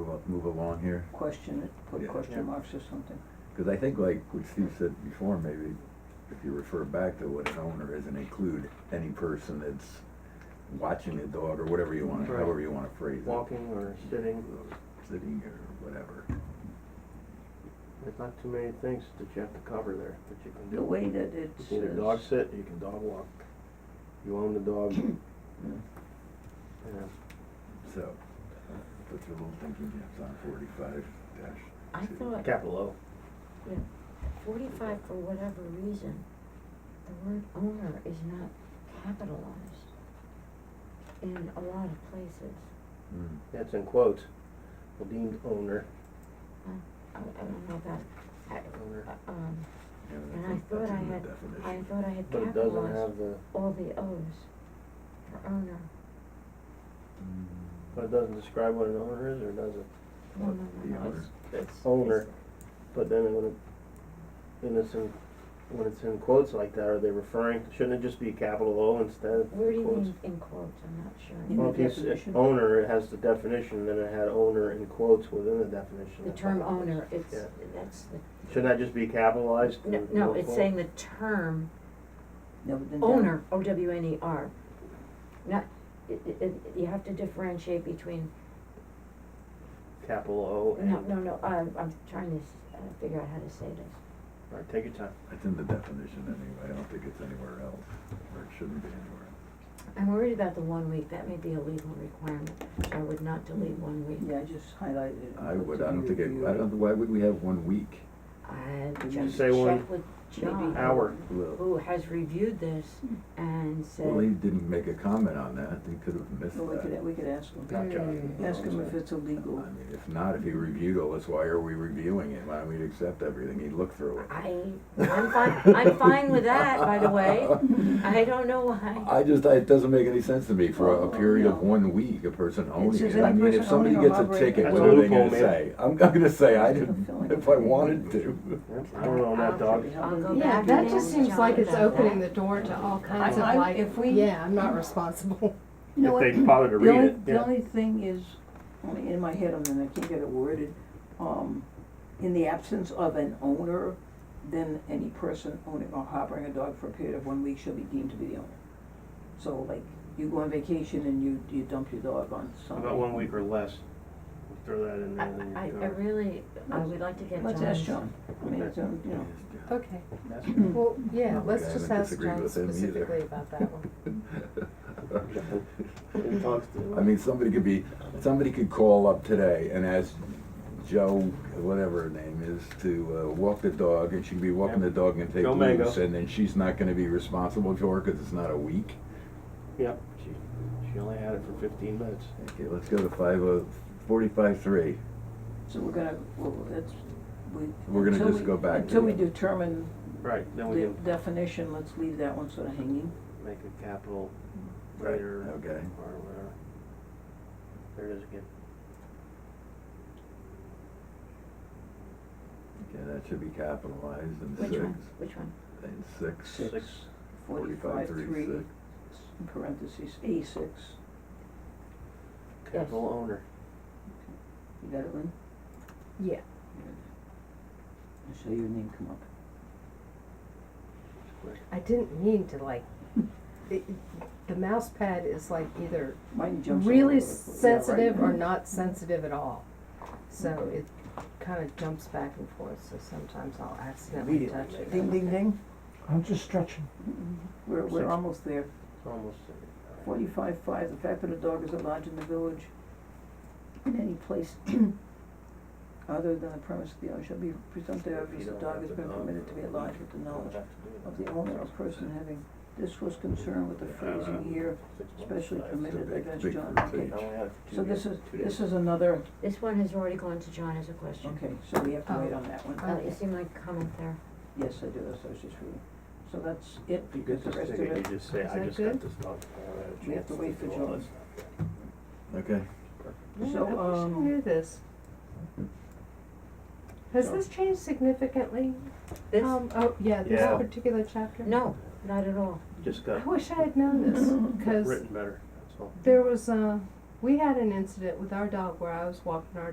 move along here? question it, put Yeah. question Yeah. marks or something. Because I think like what Steve said before, maybe if you refer back to what an owner is and include any person that's watching a dog or whatever you want, Right. however you want to phrase it. walking or sitting, Sitting or whatever. there's not too many things that you have to cover there that you can do. The way that You it's. can either dog sit, you can dog walk, you own the dog, you know. So, put your little thinking caps on forty-five dash I two. thought- Capital O. Yeah, forty-five, for whatever reason, the word owner is not capitalized in a lot of places. Mm. That's in quotes, the deemed owner. Uh, I, I don't know about, Owner. I, um, Yeah, but and I think thought that's I in the had, I definition. thought I had But it doesn't have capitalized the- all the O's for owner. Mm. But it doesn't describe what an owner is, or does it? No, Well, no, the no, no, owner. it's, it's. Owner, it's- but then when it, when it's in, when it's in quotes like that, are they referring, shouldn't it just be capital O instead of quotes? Where do you mean in quotes, I'm not In sure. the Well, if you s- definition? owner, it has the definition, then it had owner in quotes within the definition. The term owner, it's, Yeah. that's the, Shouldn't that just be capitalized? no, and no, it's quote? saying the term No, but then that- Owner, O W N E R. Not, i i i- you have to differentiate between, Capital O and. no, no, no, I'm, I'm trying to s- uh, figure out how to say this. All right, take your time. It's in the definition anyway, I don't think it's anywhere else, or it shouldn't be anywhere. I'm worried about the one week, that may be a legal requirement, so I would not delete one week. Yeah, I just highlighted it. and I put would, to I be don't think, it- I reviewed. don't, why would we have one week? I Did you just say one checked with John. John. Hour. Well- Who has reviewed this and Well, he said, didn't make a comment on that, he could have missed Well, we could, that. we could ask him. uh, Not John. Hmm. Ask him if it's I illegal. mean, if not, if he reviewed all this, why are we reviewing it? Why don't we accept everything? He'd look through it. I, I'm fine, I'm fine with that, by the way. I don't know why. I just, I- it doesn't make any sense to me for a Oh, period of no. one week, a person owning just it. I any mean, if person somebody owning or gets a operating- ticket, That's what a are they gonna loophole, man. say? I'm, I'm gonna say I didn't, Fulfilling if a- I wanted to. Yeah, I don't know on that dog. I'll go back Yeah, and that ask just seems John like it's about opening the that. door to all kinds of I- like, if we- yeah, I'm not responsible. You know If they what? bother to The read only- it, The yeah. only thing is, only in my head, I mean, I can't get it worded, um, in the absence of an owner, then any person owning or harboring a dog for a period of one week shall be deemed to be the owner. So like, you go on vacation and you, you dump your dog on How somebody. About one week or less, We'll throw that in I, there. then I, you I cover. really, I would like to get John's. Let's ask John, I mean, it's, um, you know, Okay, That's- well, yeah, Not like Oh I let's haven't just ask disagreed John with him either. specifically about that one. He talks to- I mean, somebody could be, somebody could call up today and ask Joe, whatever her name is, to uh, walk the dog, and she could be walking the dog and take Joe Mango. loose, and then she's not gonna be responsible for it, cause it's not a week. Yep, she, she only had it for fifteen minutes. Okay, let's go to five oh, forty-five three. so we're gonna, well, that's, we. We're gonna until just we- go back to Until we the- determine Right, then we the can definition, let's leave that one sort of hanging. make a capital letter or Okay. whatever. There it is again. Okay, that should be capitalized in six. Which one, which one? In six. Six. Forty-five three six. in parentheses, A six, Capital owner. you got it, Lynn? Yeah, I saw your name come up. I didn't mean to like, it, the mouse pad is like either Mine jumps all over really the place. sensitive or not sensitive at all. So it kinda jumps back and forth, so sometimes I'll accidentally Immediately touch it. Mm-hmm. Ding, make ding, ding, I'm just stretching. we're, we're Six. almost there, It's almost, uh, all right. forty-five five, the fact that a dog is at large in the village, in any place other than the premise of the owner shall be presumptive If obvious you the don't dog have has the been dog, permitted to be at large with the you don't knowledge have to do of that. the owner or person having, this was concerned with the Uh, phrasing here, six months, especially five, It's a permitted big- against big John first Dickens. page. I only had two So days- this is, two this days. is another, This one has already gone to John as a question. okay, so we have to wait Oh. on that one. Uh, you see my comment there? Yes, I do, that's what I was just reading. So that's it, If you because get the this rest of ticket, you it, just say, Is I that just got good? this dog. I haven't had a We have chance to wait for do all John. this." Okay, Yeah, So, I wish I um, knew this. Has this changed significantly? This? Um, oh, yeah, this Yeah. particular chapter? No, not at all. Just I got wish I had known this, cause written better, that's all. there was, uh, we had an incident with our dog where I was walking our